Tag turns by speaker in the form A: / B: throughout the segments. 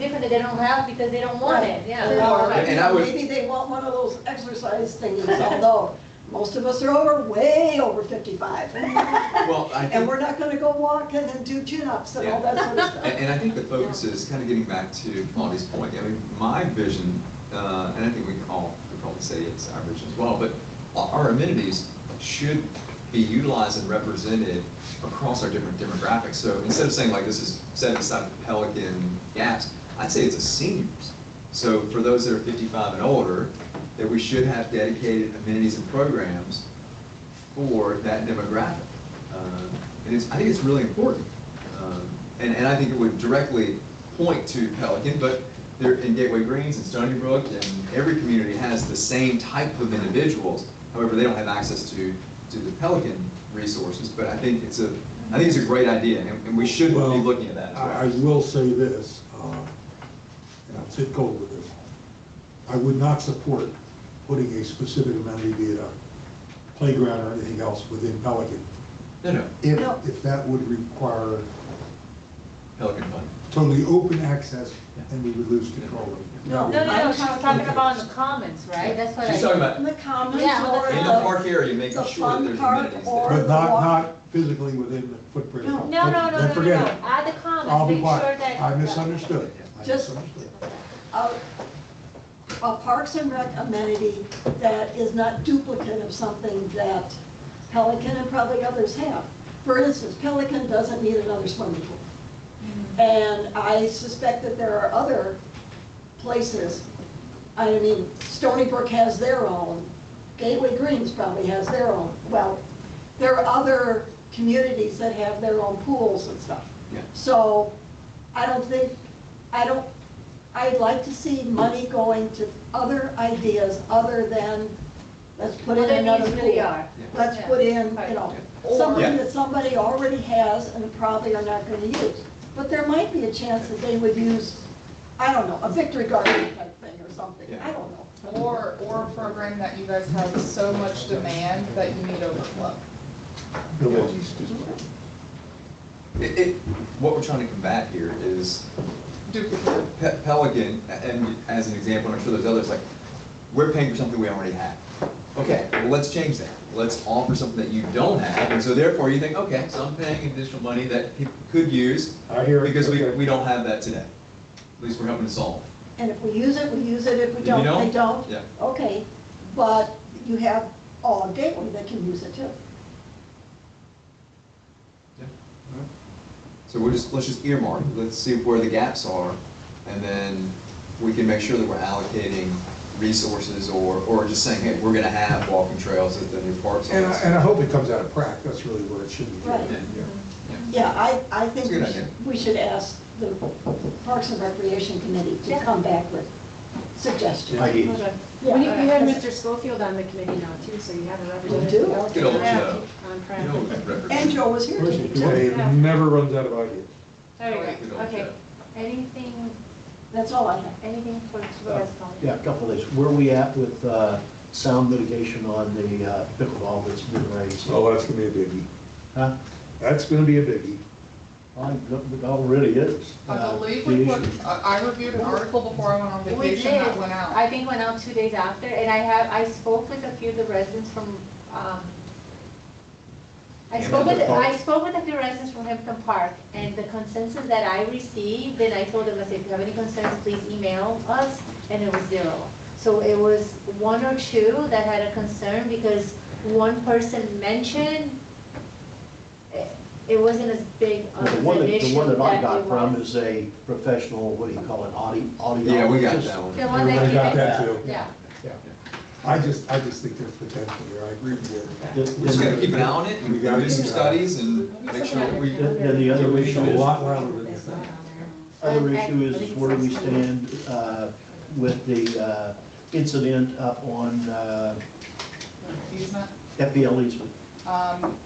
A: different that they don't have because they don't want it, yeah.
B: Or
C: And I would-
B: maybe they want one of those exercise things, although most of us are over, way over fifty-five.
C: Well, I
B: And
C: think,
B: we're not gonna go walking and do chin-ups and all that sort of
C: and,
B: stuff.
C: and I think the focus is kind of getting back to Claudia's point. I mean, my vision, uh, and I think we can all, we probably say it's our vision as well, but our our amenities should be utilized and represented across our different demographics. So instead of saying like this is set aside for Pelican Gaps, I'd say it's a seniors. So for those that are fifty-five and older, that we should have dedicated amenities and programs for that demographic. Um, And it's, I think it's really important. Um, And, and I think it would directly point to Pelican, but there, in Gateway Greens and Stony Brook, and every community has the same type of individuals. However, they don't have access to, to the Pelican resources, but I think it's a, I think it's a great idea, and and we should be
D: Well,
C: looking at that as
D: I, I
C: well.
D: will say this, uh, and I'll take cold with this. I would not support putting a specific amenity, be it a playground or anything else, within Pelican.
C: No, no,
D: If,
B: No.
D: if that would require
C: Pelican Fund.
D: totally open access, then we would lose control of it.
B: No.
A: No, no, no, she was talking about in the comments, right? That's what I.
C: She's talking about
B: In
C: in
B: the commons
A: Yeah,
B: or
A: in
C: the
B: the-
C: park area, making
B: The
C: sure that
B: fun
C: there's
B: park
C: amenities
B: or-
C: there.
D: But not, not physically within the footprint. of-
A: No, no, no,
D: Then
A: no, no,
D: forget
A: no,
D: it.
A: add the
D: I'll
A: comments,
D: be
A: make sure
D: quiet.
A: that.
D: I misunderstood. I
B: Just-
D: misunderstood.
B: a a Parks and Rec amenity that is not duplicate of something that Pelican and probably others have. For instance, Pelican doesn't need another swimming pool. And I suspect that there are other places, I mean, Stony Brook has their own, Gateway Greens probably has their own. Well, there are other communities that have their own pools and stuff.
C: Yeah.
B: So I don't think, I don't, I'd like to see money going to other ideas other than, let's put in
A: Whatever
B: another
A: needs really
B: pool.
A: are.
B: Let's
A: Yeah.
B: put in, you know,
A: Or-
B: something
C: Yeah.
B: that somebody already has and probably are not gonna use. But there might be a chance that they would use, I don't know, a victory garden type thing or something, I don't know.
E: Or, or a program that you guys have so much demand that you need overflow.
C: It, it, what we're trying to combat here is
E: Duplicate.
C: Pe- Pelican, a- and as an example, and I'm sure there's others, like, we're paying for something we already have. Okay, well, let's change that. Let's offer something that you don't have, and so therefore you think, okay, so I'm paying additional money that people could use.
D: I hear it,
C: Because we,
D: okay.
C: we don't have that today. At least we're helping to solve.
B: And if we use it, we use it, if we
C: If you
B: don't, they
C: don't,
B: don't.
C: yeah.
B: Okay, but you have all of Gateway that can use it too.
C: So we're just, let's just earmark, let's see where the gaps are, and then we can make sure that we're allocating resources or, or just saying, hey, we're gonna have walking trails at the new parks.
D: And I, and I hope it comes out of Prac, that's really where it should be.
B: Right.
D: Yeah.
B: Yeah, I, I think
C: That's a good
B: we
C: idea.
B: should- we should ask the Parks and Recreation Committee to
A: Yeah.
B: come back with suggestions.
F: Ideas.
B: Yeah.
G: We we have Mr. Schofield on the committee now too, so you have a
B: do?
G: representative.
C: Good old
G: Yeah,
C: Joe.
G: On track.
C: You know, represent-
B: And Joe was here
D: Of course,
B: today,
D: it
B: too.
D: do. It never runs out of ideas.
G: There
C: We
G: you go,
C: don't
G: okay.
C: care.
A: Anything,
B: That's all I have.
A: anything for, for us, Colleen?
F: Yeah, a couple of these. Where are we at with uh, sound mitigation on the uh, pickleball that's been raised?
D: Oh, that's gonna be a biggie.
F: Huh?
D: That's gonna be a biggie.
F: I- It already is.
E: I
F: Uh,
E: believe
F: the
E: we
F: issue-
E: put, I I reviewed an article before I went on
A: We
E: vacation
A: did.
E: that went out.
A: I think went out two days after, and I have, I spoke with a few of the residents from, um, I
C: Yeah,
A: spoke with,
F: Hampton Park.
A: I spoke with a few residents from Hampton Park, and the consensus that I received, then I told them, I said, if you have any concerns, please email us, and it was zero. So it was one or two that had a concern, because one person mentioned, eh, it wasn't as big of
F: The
E: uh,
A: an
F: one that, the
A: issue
F: one that I
A: it
F: got from
A: was.
F: is a professional, what do you call it, audi, audiologist?
C: Yeah, we got that one.
A: The one that
D: Everybody
A: you
D: got
A: had,
D: that too.
A: yeah.
D: Yeah. I just, I just think there's potential here, I agree with you.
F: Then-
C: We're just gonna keep an eye
D: out.
C: on it, and we gotta do some studies and make sure that we,
F: Then then the other
D: It's a
F: issue is.
D: lot louder than you think.
F: Other issue is, is where do we stand uh, with the uh, incident up on uh,
E: Easement.
F: FPL easement?
E: Um,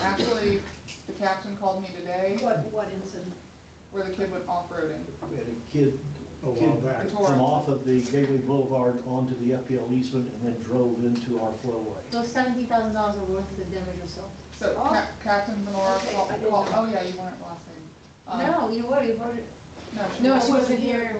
E: Actually, the captain called me today
B: What, what incident?
E: where the kid went off-roading.
F: We had a kid,
D: A while
F: kid
D: back.
F: come off of the Gateway Boulevard onto the FPL easement and then drove into our flowway.
A: So seventy thousand dollars are worth of damage or so?
E: So
B: Oh.
E: Cap- Captain Benora
B: Okay, I
E: called,
B: didn't
E: called-
B: know.
E: oh yeah, you weren't last name. Um,
A: No, you were, you were,
H: No,
A: No, she wasn't here.